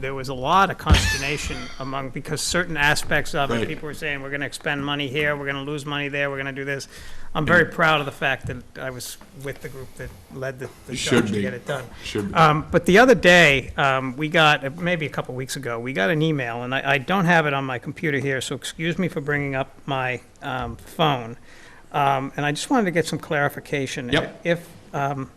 there was a lot of consternation among, because certain aspects of it, Right. people were saying, we're gonna expend money here, we're gonna lose money there, we're gonna do this. I'm Mm. very proud of the fact that I was with the group that led the the You should charge to be. get it done. Should be. Um, but the other day, um, we got, maybe a couple weeks ago, we got an email, and I, I don't have it on my computer here, so excuse me for bringing up my, um, phone. Um, and I just wanted to get some clarification. Yep. If, um,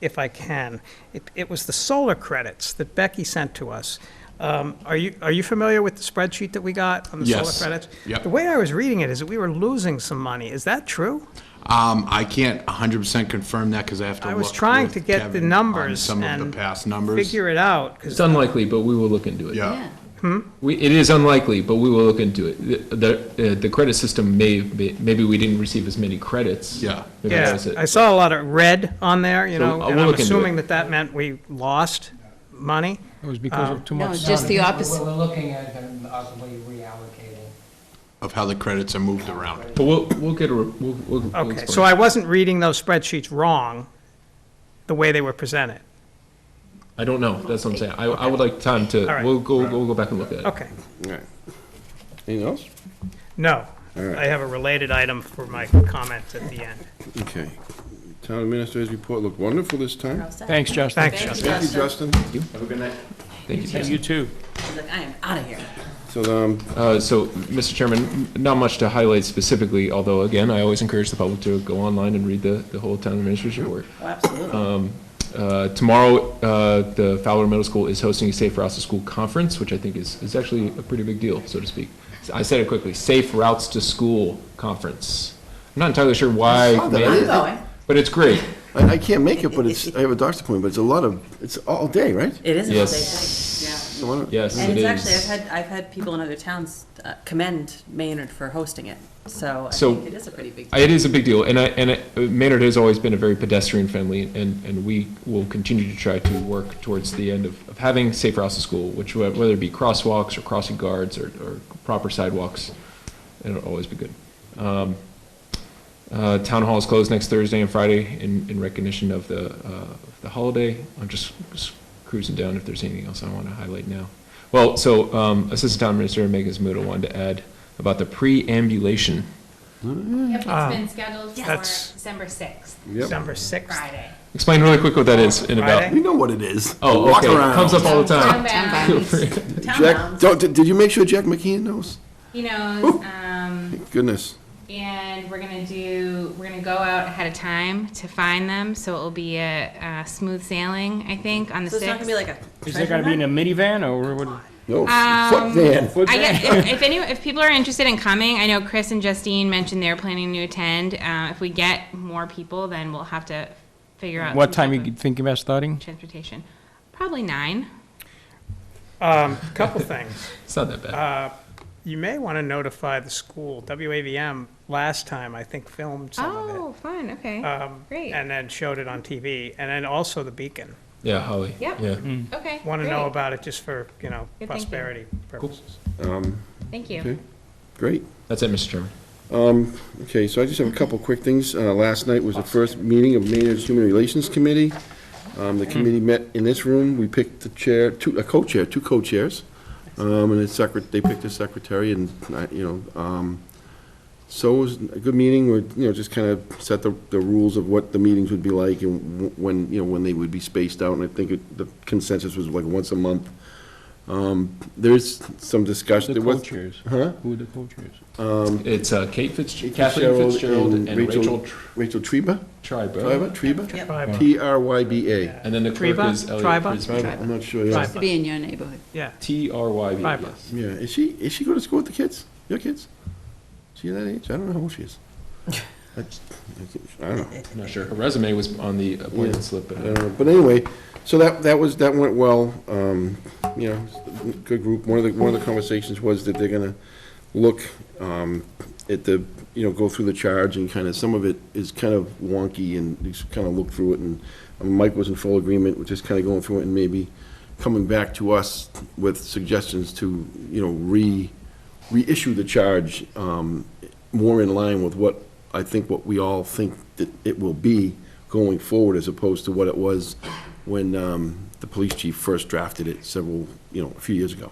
if I can. It, it was the solar credits that Becky sent to us. Um, are you, are you familiar with the spreadsheet that we got on the solar Yes. credits? Yep. The way I was reading it is that we were losing some money. Is that true? Um, I can't hundred percent confirm that because I have to I look. was trying with to get the Kevin on numbers Some of and the past numbers. Figure it out, 'cause- It's unlikely, but we will look into it. Yeah, Yeah, We, it is unlikely, but we will look into it. The- The, uh, the credit system may, may- maybe we didn't receive as many credits. Yeah. Maybe yeah, that's it. I saw a lot of red on there, you So know, I and will I'm look into assuming it. that that meant we lost money. It was because of too no, much it's sun. just the We're opposite. we're looking at them possibly reallocating. of how the credits are moved around. But we'll, we'll get a, re- we'll, we'll. we'll Okay, so explain. I wasn't reading those spreadsheets wrong, the way they were presented. I don't know, that's what I'm saying. I, I would like time to, All right. we'll go, we'll go back and look at it. Okay, Alright. Anything else? no. right. I have a related item for my comments at the end. Okay. Town Administrator's report looked wonderful this time. Thanks, Justin. Thanks, Justin. Thank you, Justin. Have a good night. Thank you. Jason. You too. Like, I am out of here. So, um, Uh, So, Mr. Chairman, m- not much to highlight specifically, although, again, I always encourage the public to go online and read the, the whole town administrator's report. Oh, Absolutely. Tomorrow, uh, the Fowler Middle School is hosting a Safe Routes to School Conference, which I think is, is actually a pretty big deal, so to speak. S- I said it quickly, Safe Routes to School Conference. I'm not entirely sure why, saw that. ma- I'm going. but it's great. I, I can't make it, but it's, I have a doctor's appointment, but it's a lot of, it's all day, right? It is a holiday Yes. thing, Why not? Yes, yeah. And it it's actually, I've is. had, I've had people in other towns uh, commend Maynard for hosting it, so I So- think it is a pretty big deal. It is a big deal, and I, and I- Maynard has always been a very pedestrian-friendly, and, and we will continue to try to work towards the end of, of having safe routes to school, which, whe- whether it be crosswalks or crossing guards or, or proper sidewalks, it'll always be good. Um, uh, Town hall is closed next Thursday and Friday in, in recognition of the, uh, the holiday. I'm just just cruising down if there's anything else I want to highlight now. Well, so um, Assistant Town Administrator Megan Smuda wanted to add about the preambulation. Yep, it's been scheduled for Ah. That's- December 6th, Yep. December 6th. Friday. Explain really quick what that is in about. Friday? You know what it is. Oh, Walk okay. around. Comes up all the Ah. Town time. bounds, Jack, Townhomes. don't, did did you make sure Jack McKeon knows? He knows, um, Thank Goodness. and we're gonna do, we're gonna go out ahead of time to find them, so it'll be a, a smooth sailing, I think, on the So it's not gonna be 6th. like a Is it treasure gonna be in hunt? a minivan or what? No, fuck Dan. I guess, if, if any, if people are interested in coming, I know Chris and Justine mentioned they're planning to attend. Uh, if we get more people, then we'll have to figure out. What some time type you of thinking about starting? Transportation. Probably nine. Um, couple things. It's not that bad. You may want to notify the school. WAVM last time, I think, filmed some of it. Oh, fun, okay, um, great. And then showed it on TV, and then also the Beacon. Yeah, Holly. Yep. Yeah. Okay, Want to know great, about it just for, you know, Good thinking. prosperity purposes. thank you. Okay. Great. That's it, Mr. Chairman. Um, okay, so I just have a couple quick things. Uh, last night was the first meeting of Maynard's Human Relations Committee. Um, the committee met in this room. We picked the chair, two, a co-chair, two co-chairs. Um, and the secret, they picked a secretary and, I- you know, um, so it was a good meeting where, you know, just kind of set the, the rules of what the meetings would be like and w- when, you know, when they would be spaced out. And I think it- the consensus was like once a month. Um, there's some discussion. The there was- Um, co-chairs. Huh? Who are the co-chairs? It's uh, Kate Fitzgerald, Jacob Kathleen Fitzgerald, and Rachel Rachel Treba? Tribe. Triba? Triba? Yep, T R Y B A. And then the clerk Triba? is Elliot Triba? Prisman. I'm not sure, yeah. Triba. to be in your neighborhood. Yeah. T R Y B. E Triba. yes. Yeah, is she, is she going to school with the kids? Your kids? Is she that age? I don't know how old she is. That's- I don't know. I'm not sure. Her resume was on the Yeah. appointment slip. I but- don't know. But anyway, so that, that was, that went well, um, you know, good group. One of the, one of the conversations was that they're gonna look, um, at the, you know, go through the charge and kind of, some of it is kind of wonky and just kind of look through it and I mean, Mike was in full agreement with just kind of going through it and maybe coming back to us with suggestions to, you know, re, reissue the charge, um, more in line with what, I think what we all think that it will be going forward as opposed to what it was when, um, the police chief first drafted it several, you know, a few years ago.